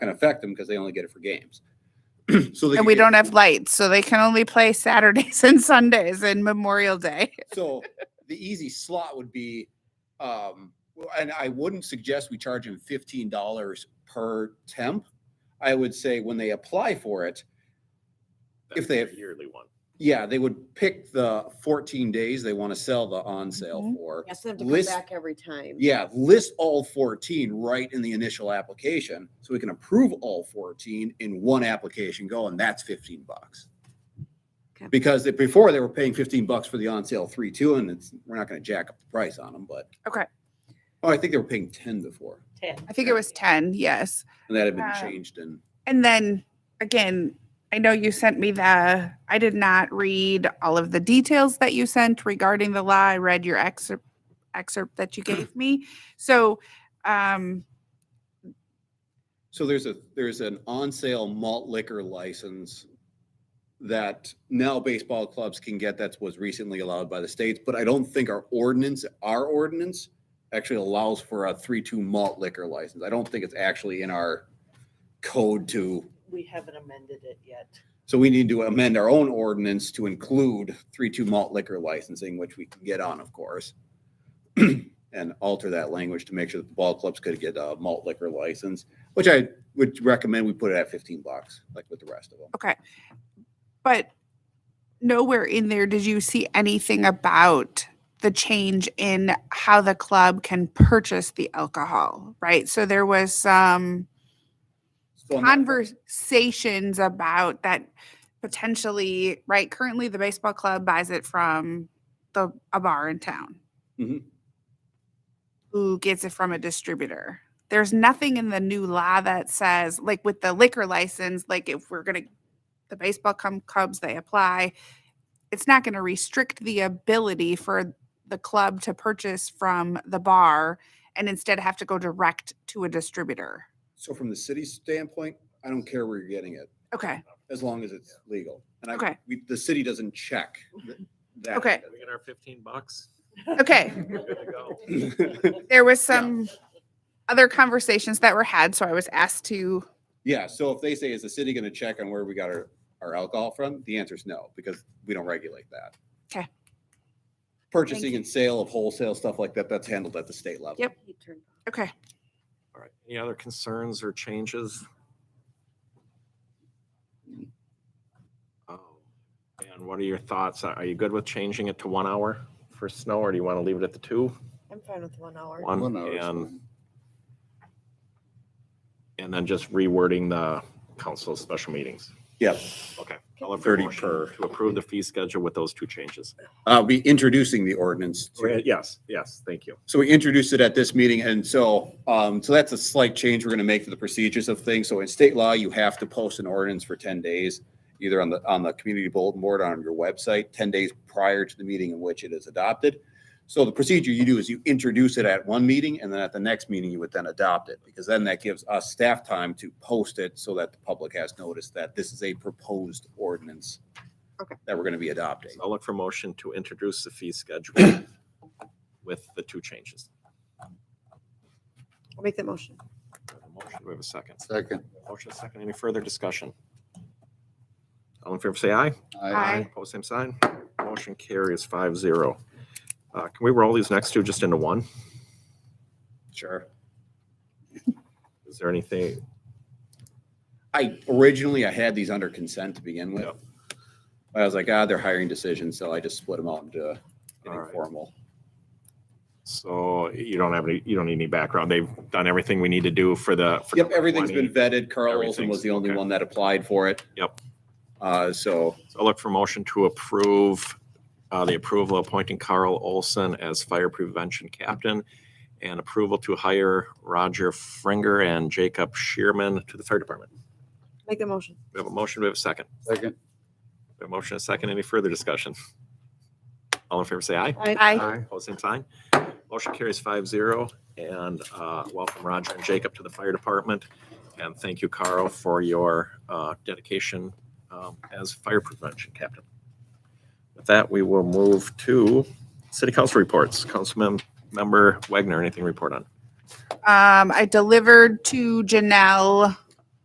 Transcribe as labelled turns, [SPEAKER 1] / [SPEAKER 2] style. [SPEAKER 1] gonna affect them because they only get it for games. So they
[SPEAKER 2] And
[SPEAKER 1] could
[SPEAKER 2] we
[SPEAKER 1] get-
[SPEAKER 2] don't have lights, so they can only play Saturdays and Sundays and Memorial Day.
[SPEAKER 1] So the easy slot would be, um, well, and I wouldn't suggest we charge them fifteen dollars per temp. I would say when they apply for it, If
[SPEAKER 3] That's
[SPEAKER 1] they
[SPEAKER 3] a
[SPEAKER 1] have-
[SPEAKER 3] Yearly one.
[SPEAKER 1] yeah, they would pick the fourteen days they want to sell the on sale
[SPEAKER 2] Mhm.
[SPEAKER 1] for.
[SPEAKER 4] Ask them to come
[SPEAKER 1] List-
[SPEAKER 4] back every time.
[SPEAKER 1] Yeah, list all fourteen right in the initial application, so we can approve all fourteen in one application go, and that's fifteen bucks.
[SPEAKER 4] Okay.
[SPEAKER 1] Because they- before they were paying fifteen bucks for the on sale three, two, and it's, we're not gonna jack up the price on them, but.
[SPEAKER 2] Okay.
[SPEAKER 1] Oh, I think they were paying ten before,
[SPEAKER 2] I think it was 10, yes.
[SPEAKER 1] and that had been
[SPEAKER 2] Um,
[SPEAKER 1] changed and,
[SPEAKER 2] And then again, I know you sent me the, I did not read all of the details that you sent regarding the law. I read your excerpt excerpt that you gave me. So um
[SPEAKER 1] so there's a, there's an on sale malt liquor license. That now baseball clubs can get, that was recently allowed by the states, but I don't think our ordinance, our ordinance. actually allows for a three-two malt liquor license. I don't think it's actually in our code to,
[SPEAKER 5] We haven't amended it yet.
[SPEAKER 1] so we need to amend our own ordinance to include three-two malt liquor licensing, which we can get on, of course. And alter that language to make sure that the ball clubs could get a malt liquor license, which I would recommend we put it at fifteen bucks, like with the rest of them.
[SPEAKER 2] but nowhere in there did you see anything about the change in how the club can purchase the alcohol, right? So there was some
[SPEAKER 1] So I'm not-
[SPEAKER 2] conversations about that potentially, right? Currently, the baseball club buys it from the a bar in town.
[SPEAKER 1] Mhm.
[SPEAKER 2] Who gets it from a distributor? There's nothing in the new law that says, like with the liquor license, like if we're gonna the baseball com- Cubs, they apply. It's not going to restrict the ability for the club to purchase from the bar and instead have to go direct to a distributor.
[SPEAKER 1] So from the city's standpoint, I don't care where you're getting it,
[SPEAKER 2] Okay.
[SPEAKER 1] as long as it's legal. And I,
[SPEAKER 2] Okay.
[SPEAKER 1] we- the city doesn't check th- that.
[SPEAKER 2] Okay.
[SPEAKER 3] We get our fifteen bucks.
[SPEAKER 2] Okay.
[SPEAKER 3] We're good to go.
[SPEAKER 2] There was some other conversations that were had, so I was asked to.
[SPEAKER 1] Yeah, so if they say, is the city gonna check on where we got our, our alcohol from? The answer is no, because we don't regulate that.
[SPEAKER 2] 'Kay.
[SPEAKER 1] Purchasing
[SPEAKER 2] you.
[SPEAKER 1] and sale of wholesale stuff like that, that's handled at the state level.
[SPEAKER 2] Yep.
[SPEAKER 4] He turned off.
[SPEAKER 2] Okay.
[SPEAKER 3] All right. Any other concerns or changes? Um, And what are your thoughts? Are are you good with changing it to one hour for snow or do you want to leave it at the two?
[SPEAKER 4] I'm fine with one hour.
[SPEAKER 3] One,
[SPEAKER 1] One hour is
[SPEAKER 3] Um, and,
[SPEAKER 1] fine.
[SPEAKER 3] and then just rewording the council special meetings.
[SPEAKER 1] Yep,
[SPEAKER 3] Okay. I'll have a
[SPEAKER 1] 30
[SPEAKER 3] motion
[SPEAKER 1] per.
[SPEAKER 3] To approve the fee schedule with those two changes.
[SPEAKER 1] I'll be uh, introducing the ordinance. to-
[SPEAKER 3] Yes, yes, thank you.
[SPEAKER 1] So we introduced it at this meeting, and so, um, so that's a slight change we're gonna make to the procedures of things. So in state law, you have to post an ordinance for ten days, either on the, on the community bulletin board, on your website, ten days prior to the meeting in which it is adopted. So the procedure you do is you introduce it at one meeting, and then at the next meeting, you would then adopt it, because then that gives us staff time to post it so that the public has notice that this is a proposed ordinance
[SPEAKER 4] Okay.
[SPEAKER 1] that we're gonna be adopting.
[SPEAKER 3] I'll look for motion to introduce the fee schedule with the two changes.
[SPEAKER 4] I'll make that motion.
[SPEAKER 3] We have a Motion, we have a second.
[SPEAKER 6] Second.
[SPEAKER 3] Motion second. Any further discussion? All in favor, say aye.
[SPEAKER 2] Aye.
[SPEAKER 3] Post same sign. Motion carries five zero. Uh, can we roll these next two just into one?
[SPEAKER 1] Sure.
[SPEAKER 3] Is there anything?
[SPEAKER 1] I originally I had these under consent to begin with.
[SPEAKER 3] Yep.
[SPEAKER 1] I was like, ah, they're hiring decisions, so I just split them out into
[SPEAKER 3] All right.
[SPEAKER 1] anything formal.
[SPEAKER 3] So you don't have any, you don't need any background. They've done everything we need to do for the. for
[SPEAKER 1] Yep, everything's been
[SPEAKER 3] 20.
[SPEAKER 1] vetted. Carl Olson
[SPEAKER 3] Everything's-
[SPEAKER 1] was the only
[SPEAKER 3] okay.
[SPEAKER 1] one that applied for it.
[SPEAKER 3] Yep.
[SPEAKER 1] Uh, so
[SPEAKER 3] So I'll look for motion to approve, uh, the approval of appointing Carl Olson as fire prevention captain and approval to hire Roger Fringer and Jacob Shearman to the fire department.
[SPEAKER 4] Make the motion.
[SPEAKER 3] We have a motion, we have a second.
[SPEAKER 6] Second.
[SPEAKER 3] We have a motion, and a second. Any further discussion? All in favor, say aye.
[SPEAKER 2] I
[SPEAKER 3] Opposed, same sign. Motion carries five zero. And uh, welcome Roger and Jacob to the fire department. And thank you, Carl, for your uh, dedication um, as fire prevention captain. With that, we will move to city council reports. Councilman member Wagner, anything to report on?
[SPEAKER 2] um I delivered to Janelle